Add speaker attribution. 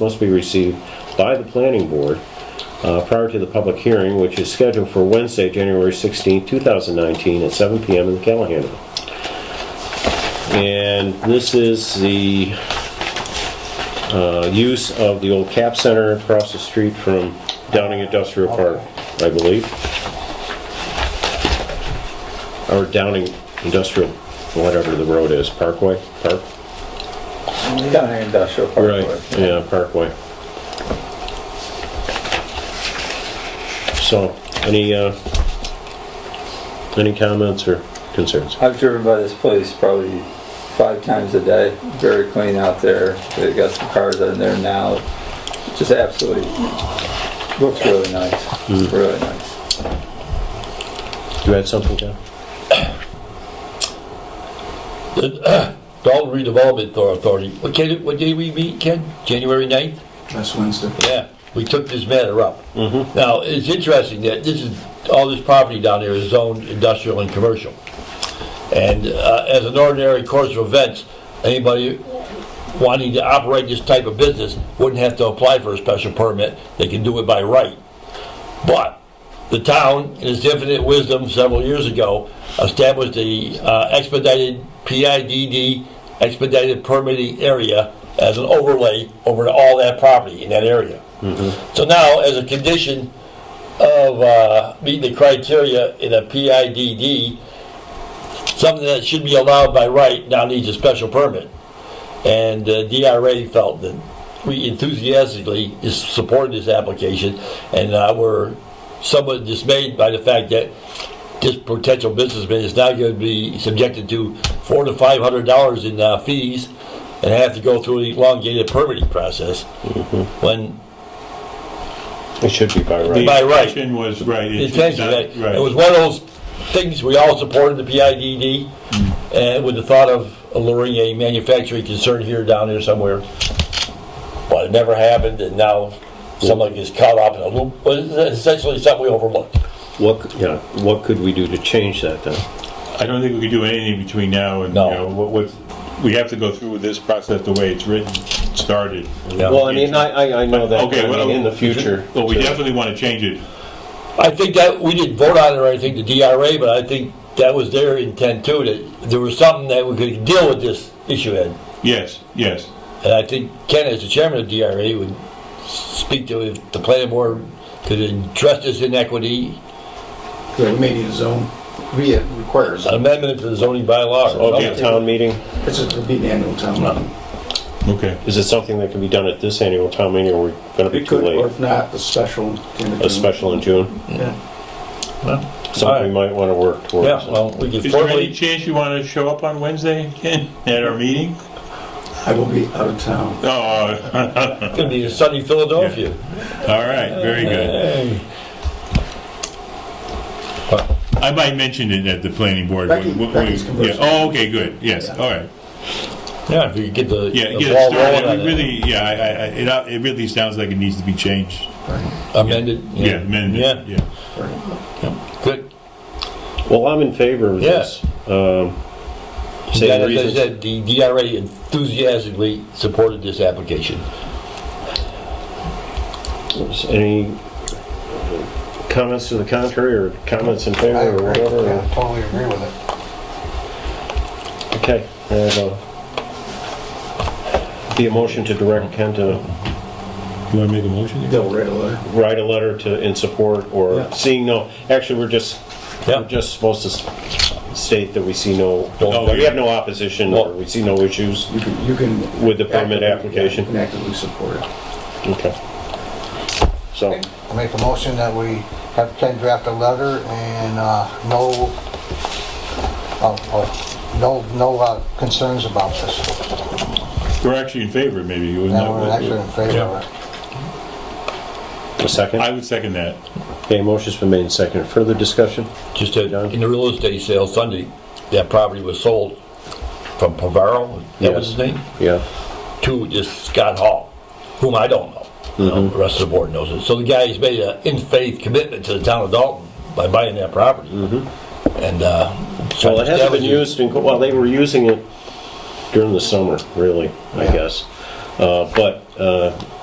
Speaker 1: must be received by the planning board uh, prior to the public hearing, which is scheduled for Wednesday, January 16, 2019, at 7 PM in the Callahan Room. And this is the uh, use of the old cap center across the street from Downing Industrial Park, I believe. Or Downing Industrial, whatever the road is, Parkway, Park?
Speaker 2: Down here in Industrial Park.
Speaker 1: Right, yeah, Parkway. So, any, uh, any comments or concerns?
Speaker 2: I've driven by this place probably five times a day. Very clean out there. They've got some cars in there now. Just absolutely, looks really nice,
Speaker 1: Mm.
Speaker 2: really nice.
Speaker 1: You had something, Ken?
Speaker 3: Dalton Redevelopment Authority, what can, what day we meet, Ken? January 9th?
Speaker 4: Last Wednesday.
Speaker 3: Yeah, we took this matter up. Now, it's interesting that this is, all this property down here is zoned industrial and commercial. And uh, as an ordinary course of events, anybody wanting to operate this type of business wouldn't have to apply for a special permit, they can do it by right. But the town, in its infinite wisdom several years ago, established the uh, expedited PIDD, expedited permitting area as an overlay over all that property in that area. So now, as a condition of uh, meeting the criteria in a PIDD, something that should be allowed by right now needs a special permit. And uh, DRA felt that we enthusiastically is- supported this application, and uh, we're somewhat dismayed by the fact that this potential businessman is now going to be subjected to four to five hundred dollars in uh, fees and have to go through an elongated permitting process, when
Speaker 1: It should be by right.
Speaker 3: by
Speaker 5: The
Speaker 3: right.
Speaker 5: intention was, right.
Speaker 3: The
Speaker 5: it's
Speaker 3: intention
Speaker 5: not-
Speaker 3: that,
Speaker 5: right.
Speaker 3: it was one of those things, we all supported the PIDD, and with the thought of alluring a manufacturing concern here, down here somewhere. But it never happened, and now someone gets caught up in a loop, Well, it's essentially something we overlooked.
Speaker 1: What, yeah, what could we do to change that then?
Speaker 5: I don't think we could do anything between now and, you
Speaker 3: No.
Speaker 5: know, what, what, we have to go through this process the way it's written, started.
Speaker 3: Yeah.
Speaker 1: Well, I mean, I, I- I know that,
Speaker 5: Okay,
Speaker 1: I
Speaker 5: well,
Speaker 1: mean, in the future.
Speaker 5: Well, we definitely want to change it.
Speaker 3: I think that, we didn't vote on it or anything, the DRA, but I think that was their intent too, that there was something that we could deal with this issue in.
Speaker 5: Yes, yes.
Speaker 3: And I think Ken, as the chairman of DRA, would speak to if the planning board could address this inequity
Speaker 4: Yeah, we may need a zone. We uh, it requires,
Speaker 3: An amendment to the zoning bylaw.
Speaker 1: Of
Speaker 3: or something.
Speaker 1: the town meeting,
Speaker 4: it's a, it'll be an annual town meeting.
Speaker 5: Okay.
Speaker 1: is it something that can be done at this annual town meeting, or we're gonna be
Speaker 4: It
Speaker 1: too
Speaker 4: could, or
Speaker 1: late?
Speaker 4: if not, a special. in the-
Speaker 1: A special in June?
Speaker 4: Yeah.
Speaker 1: Something we might wanna work towards.
Speaker 3: Yeah, well, we could
Speaker 5: Is there any
Speaker 3: formally,
Speaker 5: chance you want to show up on Wednesday, Ken, at our meeting?
Speaker 4: I will be out of town.
Speaker 5: Oh, all
Speaker 3: it's gonna be in sunny Philadelphia.
Speaker 5: right, very good. I might mention it at the planning board.
Speaker 4: Becky-
Speaker 5: when- when we-
Speaker 4: Becky's
Speaker 5: yeah.
Speaker 4: conversing.
Speaker 5: Oh, okay, good, yes, all right.
Speaker 3: Yeah, if we could get the
Speaker 5: Yeah,
Speaker 3: the
Speaker 5: get it
Speaker 3: ball
Speaker 5: started.
Speaker 3: rolling
Speaker 5: It
Speaker 3: on it.
Speaker 5: Really, yeah, I, I, I- it, uh, it really sounds like it needs to be changed.
Speaker 3: Amended.
Speaker 5: Yeah, amendment,
Speaker 3: Yeah,
Speaker 5: yeah.
Speaker 3: good.
Speaker 1: Well, I'm in favor of this. Um,
Speaker 3: Yeah,
Speaker 1: Same
Speaker 3: as I
Speaker 1: reasons,
Speaker 3: said, the DRA enthusiastically supported this application.
Speaker 1: any comments to the contrary, or comments in favor,
Speaker 6: I
Speaker 1: or
Speaker 6: agree,
Speaker 1: whatever?
Speaker 6: yeah, totally agree with it.
Speaker 1: Okay, and, uh, be a motion to direct Ken to
Speaker 5: You want to make a motion?
Speaker 4: They'll write a letter.
Speaker 1: write a letter to, in support, or
Speaker 4: Yeah.
Speaker 1: seeing no, actually, we're just,
Speaker 3: Yeah.
Speaker 1: we're just supposed to s- state that we see no,
Speaker 5: Oh,
Speaker 1: we
Speaker 5: yeah.
Speaker 1: have no opposition, or we see no issues
Speaker 4: You can, you can.
Speaker 1: with the permit
Speaker 4: You
Speaker 1: application.
Speaker 4: can actively support it.
Speaker 1: Okay. So,
Speaker 6: I Make a motion that we have Ken draft a letter and, uh, no, oh, oh, no, no uh, concerns about this.
Speaker 5: We're actually in favor, maybe. It was
Speaker 6: Now, we're
Speaker 5: not-
Speaker 6: actually in favor of it.
Speaker 1: a second?
Speaker 5: I would second that.
Speaker 1: Okay, motion's been made and seconded. Further discussion?
Speaker 3: Just that in the real estate sale Sunday, that property was sold from Pavaro, that was his name?
Speaker 1: Yeah.
Speaker 3: to this Scott Hall, whom I don't know.
Speaker 1: Mm-hmm.
Speaker 3: The rest of the board knows it. So the guy's made an in faith commitment to the town of Dalton by buying that property. And uh, so
Speaker 1: Mm-hmm. Well, it hasn't been
Speaker 3: establishes-
Speaker 1: used in, well, they were using it during the summer, really, I guess. Uh, But uh,